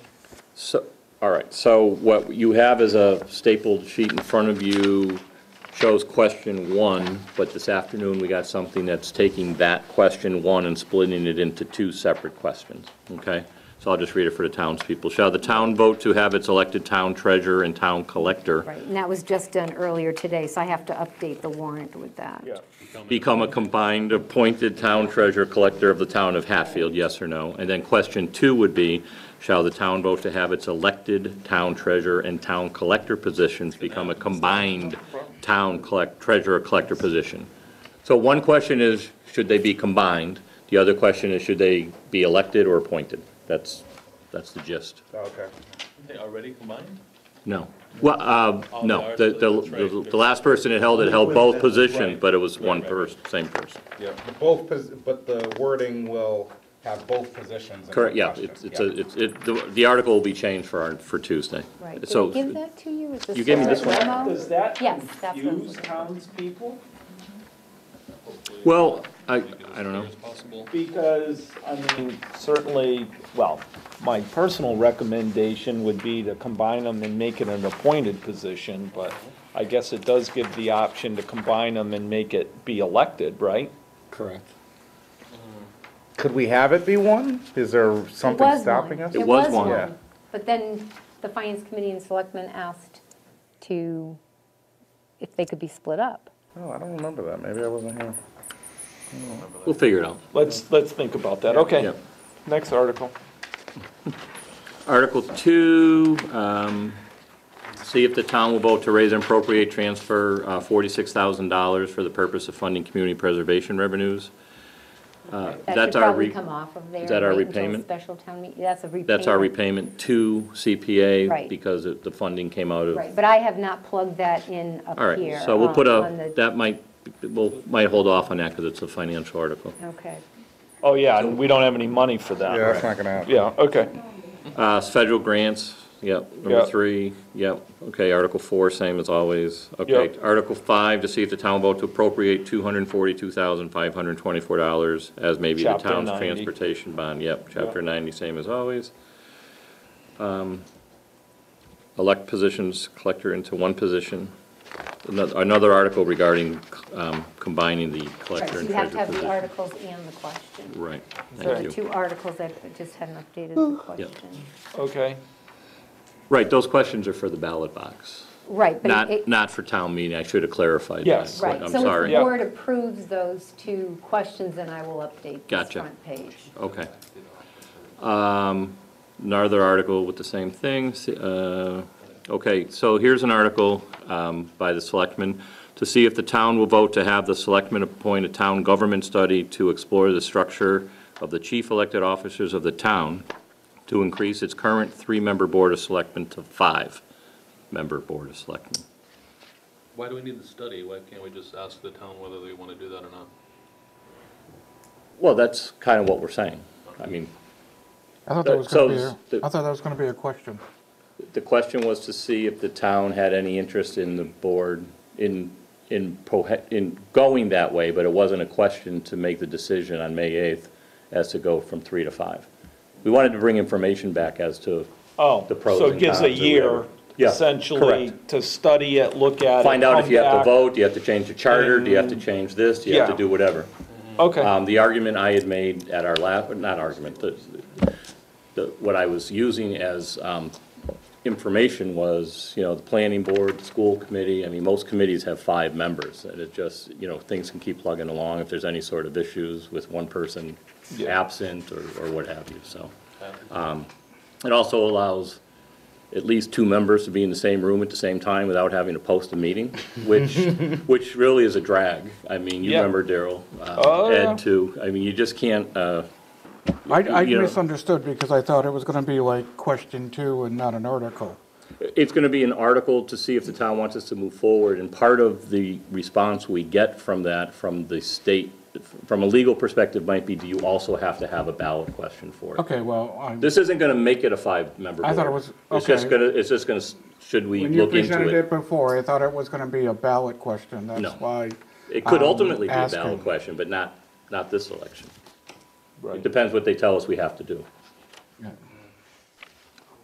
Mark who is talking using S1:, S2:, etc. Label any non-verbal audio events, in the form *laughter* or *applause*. S1: So, all right, so what you have is a stapled sheet in front of you, shows question one, but this afternoon, we got something that's taking that question one and splitting it into two separate questions, okay? So I'll just read it for the townspeople. Shall the town vote to have its elected town treasurer and town collector
S2: Right, and that was just done earlier today, so I have to update the warrant with that.
S1: become a combined appointed town treasurer collector of the town of Hatfield, yes or no? And then question two would be, shall the town vote to have its elected town treasurer and town collector positions become a combined town collect, treasurer collector position? So one question is, should they be combined? The other question is, should they be elected or appointed? That's, that's the gist.
S3: Okay.
S4: They already combined?
S1: No. Well, uh, no, the, the, the- the last person that held it held both positions, but it was one person, same person.
S3: Yeah, but both, pos- but the wording will have both positions in the
S1: Correct, yeah,
S3: question.
S1: it's, it's, a- it's, it, the- the article will be changed for our, for Tuesday.
S2: Right, did
S1: So,
S2: I give that to you? Is this
S1: You gave me
S2: the
S1: this one.
S2: memo?
S5: Does that
S2: Yes, that's what I'm
S5: confuse
S2: looking for.
S5: townspeople?
S1: well, I, I don't know.
S4: Possible.
S5: Because, I mean, certainly, well, my personal recommendation would be to combine them and make it an appointed position, but I guess it does give the option to combine them and make it be elected, right?
S6: Correct.
S3: Could we have it be one? Is there
S2: It
S3: something
S2: was
S3: stopping
S2: one.
S3: us?
S1: It was one. Yeah.
S2: But then the Finance Committee and Selectmen asked to, if they could be split up.
S3: Oh, I don't remember that, maybe I wasn't here.
S1: We'll figure it out.
S5: Let's, let's think about that,
S1: Yeah.
S5: okay. Next article.
S1: Article two, um, see if the town will vote to raise and appropriate transfer, uh, forty-six thousand dollars for the purpose of funding community preservation revenues. Uh,
S2: That
S1: that's
S2: should
S1: our
S2: probably
S1: re-
S2: come off of there.
S1: is that our
S2: and wait until
S1: repayment?
S2: Special town meeting, that's a repayment.
S1: That's our repayment to CPA.
S2: Right.
S1: Because it- the funding came out of.
S2: Right, but I have not plugged that in up
S1: All
S2: here.
S1: right, so we'll
S2: um,
S1: put
S2: on
S1: a,
S2: the-
S1: that might, we'll, might hold off on that because it's a financial article.
S2: Okay.
S5: Oh, yeah, and we don't have any money for that,
S3: Yeah, that's
S5: right?
S3: not gonna happen.
S5: Yeah, okay.
S1: Uh, federal grants, yep, number
S5: Yep.
S1: three, yep, okay, Article four, same as always, okay.
S5: Yep.
S1: Article five, to see if the town vote to appropriate two hundred and forty-two thousand, five hundred and twenty-four dollars as may be the
S5: Chapter
S1: town's
S5: 90.
S1: transportation bond, yep, chapter ninety, same as always. Um, Elect positions, collector into one position. Another, another article regarding, um, combining the
S2: Right,
S1: collector
S2: so
S1: and
S2: you have to
S1: treasurer
S2: have the
S1: position.
S2: articles and the question.
S1: Right,
S2: So
S1: thank
S2: the
S1: you.
S2: two articles, I just hadn't updated the question.
S5: Okay.
S1: Right, those questions are for the ballot box.
S2: Right, but
S1: Not,
S2: it-
S1: not for town meeting, I should have clarified that,
S5: Yes.
S1: but
S2: Right,
S1: I'm
S2: so if
S1: sorry.
S2: the
S5: Yeah.
S2: board approves those two questions, then I will update this
S1: Gotcha.
S2: front page.
S1: Okay. Um, Another article with the same thing, see- uh, okay, so here's an article um, by the selectmen, to see if the town will vote to have the selectmen appoint a town government study to explore the structure of the chief elected officers of the town to increase its current three-member board of selectmen to five-member board of selectmen.
S4: Why do we need the study? Why can't we just ask the town whether they want to do that or not?
S1: Well, that's kind of what we're saying. I mean,
S7: I thought
S1: Uh,
S7: that was
S1: so
S7: gonna be,
S1: s-
S7: a-
S1: the-
S7: I thought that was gonna be a question.
S1: The question was to see if the town had any interest in the board, in, in, prohe- in going that way, but it wasn't a question to make the decision on May 8th as to go from three to five. We wanted to bring information back as to,
S5: Oh,
S1: the pros
S5: so it
S1: and
S5: gives a
S1: cons or
S5: year
S1: whatever. Yeah,
S5: essentially to study it, look at it.
S1: find out if
S5: come
S1: you have to
S5: back. Mm-hmm.
S1: vote, do you have to change the charter, do you have to change this, do you have to
S5: Yeah.
S1: do whatever?
S5: Okay,
S1: Um, the argument I had made at our la, not argument, the, the, what I was using as, um, information was, you know, the planning board, the school committee, I mean, most committees have five members, and it just, you know, things can keep plugging along if there's any sort of issues with one person
S5: Yeah.
S1: absent or, or what have you, so. um, It also allows at least two members to be in the same room at the same time without having to post a meeting,
S5: *laughs*
S1: which, which really is a drag. I mean, you
S5: Yeah.
S1: remember Daryl,
S5: Oh,
S1: um,
S5: yeah.
S1: Ed too. I mean, you just can't, uh,
S7: I, I
S1: you know-
S7: misunderstood because I thought it was gonna be like question two and not an article.
S1: it's going to be an article to see if the town wants us to move forward. And part of the response we get from that, from the state, from a legal perspective, might be, do you also have to have a ballot question for it?
S7: Okay, well, I'm,
S1: This isn't going to make it a five-member board.
S7: I thought it was-
S1: It's just
S7: okay.
S1: going to, it's just going to, should we
S7: when you
S1: look into
S7: presented it before, I thought it was gonna be a ballot question,
S1: No.
S7: that's why.
S1: It could
S7: um,
S1: ultimately be a
S7: asking.
S1: ballot question, but not, not this election. It
S5: Right.
S1: depends what they tell us we have to do.
S7: Yeah.